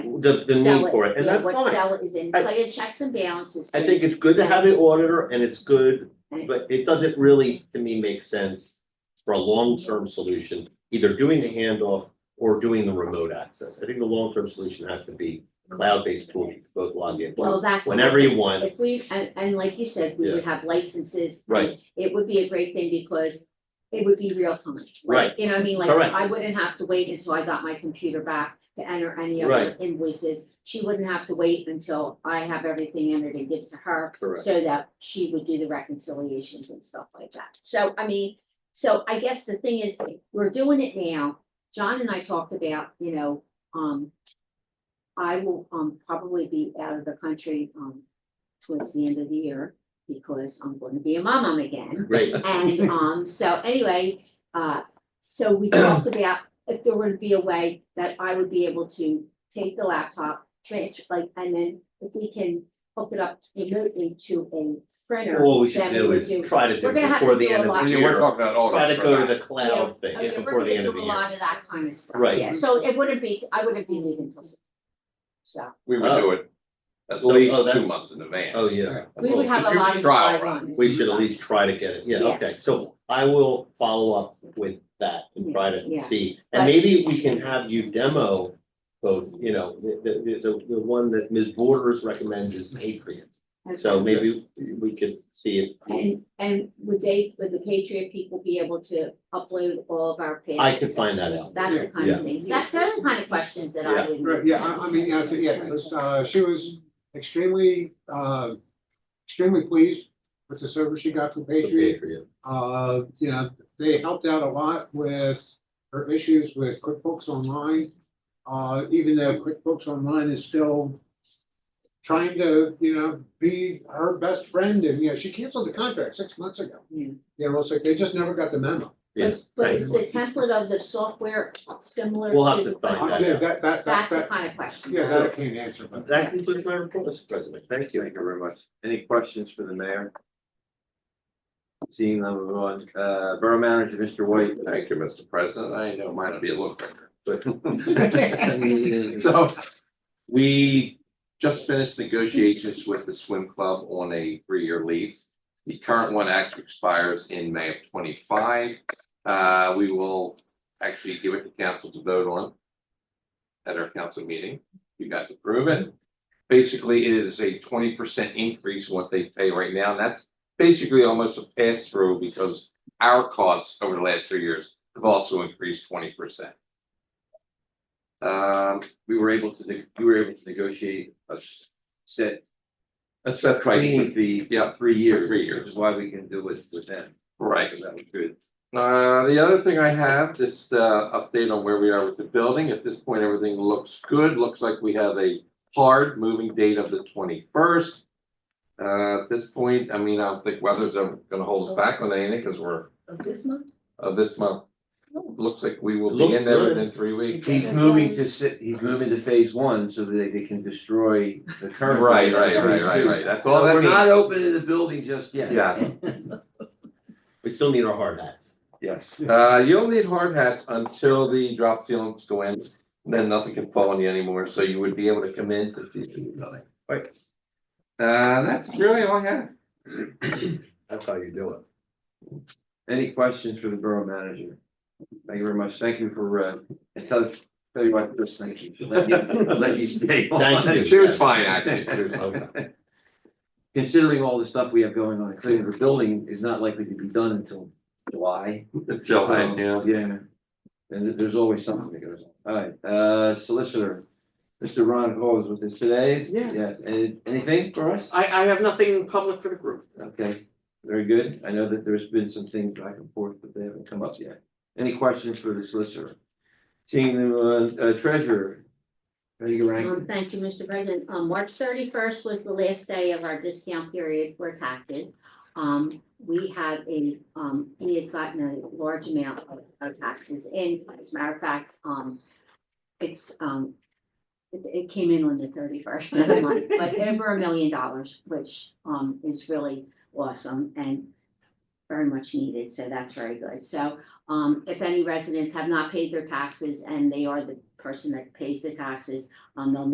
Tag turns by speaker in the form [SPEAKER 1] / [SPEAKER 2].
[SPEAKER 1] the, the
[SPEAKER 2] sell
[SPEAKER 1] need for it, and
[SPEAKER 2] yeah,
[SPEAKER 1] that's
[SPEAKER 2] what
[SPEAKER 1] fine.
[SPEAKER 2] Sell is inside of checks and balances.
[SPEAKER 1] I think it's good to have an auditor and it's good,
[SPEAKER 2] Right.
[SPEAKER 1] but it doesn't really, to me, make sense for a long-term solution, either doing the handoff or doing the remote access. I think the long-term solution has to be cloud-based tool that you both log in
[SPEAKER 2] Well, that's.
[SPEAKER 1] whenever you want.
[SPEAKER 2] If we, and, and like you said, we would have licenses.
[SPEAKER 1] Right.
[SPEAKER 2] It would be a great thing because it would be real time. like,
[SPEAKER 1] Right.
[SPEAKER 2] You know what I mean? Like,
[SPEAKER 1] Correct.
[SPEAKER 2] I wouldn't have to wait until I got my computer back to enter any other
[SPEAKER 1] Right.
[SPEAKER 2] invoices. She wouldn't have to wait until I have everything entered and give to her.
[SPEAKER 1] Correct.
[SPEAKER 2] So that she would do the reconciliations and stuff like that. So, I mean, so I guess the thing is, we're doing it now. John and I talked about, you know, um, I will, um, probably be out of the country, um, towards the end of the year because I'm going to be a mom again.
[SPEAKER 1] Great,
[SPEAKER 2] And, um, so anyway, uh, so we talked about if there would be a way that I would be able to take the laptop, transfer, like, and then if we can hook it up remotely to a printer.
[SPEAKER 1] all we should
[SPEAKER 2] then
[SPEAKER 1] do
[SPEAKER 2] would
[SPEAKER 1] is try to do
[SPEAKER 2] We're
[SPEAKER 1] it
[SPEAKER 2] gonna have
[SPEAKER 1] before
[SPEAKER 2] to
[SPEAKER 1] the
[SPEAKER 2] do
[SPEAKER 1] end
[SPEAKER 2] a
[SPEAKER 1] of
[SPEAKER 2] lot.
[SPEAKER 1] the
[SPEAKER 2] Yeah,
[SPEAKER 1] year.
[SPEAKER 3] talking about all
[SPEAKER 1] Try
[SPEAKER 3] that
[SPEAKER 1] to go
[SPEAKER 3] stuff.
[SPEAKER 1] to the cloud thing
[SPEAKER 2] I mean, we're
[SPEAKER 1] before
[SPEAKER 2] gonna
[SPEAKER 1] the end of
[SPEAKER 2] do
[SPEAKER 1] the
[SPEAKER 2] A
[SPEAKER 1] year.
[SPEAKER 2] lot of that kind of stuff.
[SPEAKER 1] Right.
[SPEAKER 2] Yeah, so it wouldn't be, I wouldn't be leaving till, so.
[SPEAKER 3] We would do it at
[SPEAKER 1] So- oh,
[SPEAKER 3] least two
[SPEAKER 1] that's-
[SPEAKER 3] months in advance.
[SPEAKER 1] Oh, yeah.
[SPEAKER 2] We would have a
[SPEAKER 3] Huge
[SPEAKER 2] lot of
[SPEAKER 3] trial
[SPEAKER 2] eyes
[SPEAKER 3] run.
[SPEAKER 2] on this.
[SPEAKER 1] We should at least try to get it, yeah,
[SPEAKER 2] Yeah.
[SPEAKER 1] okay, so I will follow up with that and try
[SPEAKER 2] Yeah.
[SPEAKER 1] to see. And maybe we can have you demo both, you know, the, the, the, the one that Ms. Borders recommends is Patriot. So maybe we could see if,
[SPEAKER 2] And, and would they, would the Patriot people be able to upload all of our pins?
[SPEAKER 1] I can find that out.
[SPEAKER 2] That's the kind
[SPEAKER 1] Yeah.
[SPEAKER 2] of things, that, those are the kind of questions that I
[SPEAKER 1] Yeah.
[SPEAKER 2] would.
[SPEAKER 4] Right, yeah, I, I mean, yeah, so, yeah, this, uh, she was extremely, uh, extremely pleased with the service she got from
[SPEAKER 1] The
[SPEAKER 4] Patriot. Uh, you know, they helped out a lot with her issues with QuickBooks Online. Uh, even though QuickBooks Online is still trying to, you know, be her best friend and, you know, she canceled the contract six months ago.
[SPEAKER 2] Yeah.
[SPEAKER 4] You know, it's like they just never got the memo.
[SPEAKER 1] Yes,
[SPEAKER 2] But is the template of the software similar to?
[SPEAKER 1] We'll have to find
[SPEAKER 4] Uh,
[SPEAKER 1] that
[SPEAKER 4] yeah,
[SPEAKER 1] out.
[SPEAKER 4] That, that,
[SPEAKER 2] That's
[SPEAKER 4] that,
[SPEAKER 2] the
[SPEAKER 4] that,
[SPEAKER 2] kind of question.
[SPEAKER 4] yeah, that I can't answer, but.
[SPEAKER 1] That concludes my report, Mr. President.
[SPEAKER 5] Thank you, thank you very much. Any questions for the mayor? Seeing none, we move on. Uh, Borough Manager, Mr. White.
[SPEAKER 3] Thank you, Mr. President. I know mine'll be a little quicker, but.
[SPEAKER 1] Thank
[SPEAKER 3] So we just finished negotiations with the swim club on a three-year lease. The current one actually expires in May of twenty-five. Uh, we will actually give it to council to vote on at our council meeting. You guys approve it. Basically, it is a twenty percent increase in what they pay right now. And that's basically almost a pass-through because our costs over the last three years have also increased twenty percent. Um,
[SPEAKER 5] We were able to, neg- you were able to negotiate a s- set
[SPEAKER 3] A set price,
[SPEAKER 5] price
[SPEAKER 3] would
[SPEAKER 5] with
[SPEAKER 3] be-
[SPEAKER 5] the,
[SPEAKER 3] yeah,
[SPEAKER 5] yeah, three years.
[SPEAKER 3] Three years.
[SPEAKER 5] Which is why we can do it with them,
[SPEAKER 3] right.
[SPEAKER 5] because that was good.
[SPEAKER 3] Uh, the other thing I have, just, uh, update on where we are with the building. At this point, everything looks good. Looks like we have a hard moving date of the twenty-first. Uh, at this point, I mean, I don't think weather's ever gonna hold us back on anything, because we're,
[SPEAKER 2] Of this month? Oh.
[SPEAKER 3] uh, this month. Looks like we will
[SPEAKER 1] It
[SPEAKER 3] be
[SPEAKER 1] looks
[SPEAKER 3] in there
[SPEAKER 1] good.
[SPEAKER 3] within three weeks.
[SPEAKER 5] He's moving to, si- he's moving to phase one so that they- they can destroy the current.
[SPEAKER 3] Right, right, right, right, right. That's all that
[SPEAKER 5] We're not
[SPEAKER 3] means.
[SPEAKER 5] opening the building just yet.
[SPEAKER 3] Yeah.
[SPEAKER 1] We still need our hard hats.
[SPEAKER 5] Yes.
[SPEAKER 3] Uh, you'll need hard hats until the drop ceilings go in, then nothing can fall on you anymore, so you would be able to come in to see. the building. Right. Uh, that's really all I have.
[SPEAKER 1] That's how you do it.
[SPEAKER 5] Any questions for the borough manager? Thank you very much. Thank you for, uh, and tell, tell you what, Chris, thank you. for letting you- Let you stay on.
[SPEAKER 1] Thank you.
[SPEAKER 3] She was fine, actually. She was fine.
[SPEAKER 1] Okay.
[SPEAKER 5] Considering all the stuff we have going on, including the building is not likely to be done until July.
[SPEAKER 3] Jill,
[SPEAKER 5] So,
[SPEAKER 3] I- yeah.
[SPEAKER 5] Yeah. And th- there's always something that goes on. All right, uh, solicitor, Mr. Ron Hall is with us today.
[SPEAKER 6] Yes.
[SPEAKER 5] And anything for us?
[SPEAKER 6] I, I have nothing in public for the group.
[SPEAKER 5] Okay, very good. I know that there's been some things back and forth, but they haven't come up yet. Any questions for the solicitor? Seeing the uh, uh, treasurer. Ready to
[SPEAKER 2] Um,
[SPEAKER 5] rank?
[SPEAKER 2] thank you, Mr. President. Um, March thirty-first was the last day of our discount period for taxes. Um, we have a, um, we had gotten a large amount of, of taxes in. As a matter of fact, um, it's, um, it, it came in on the thirty-first of the month, but over a million dollars, which, um, is really awesome and very much needed. So that's very good. So, um, if any residents have not paid their taxes and they are the person that pays the taxes, um, they'll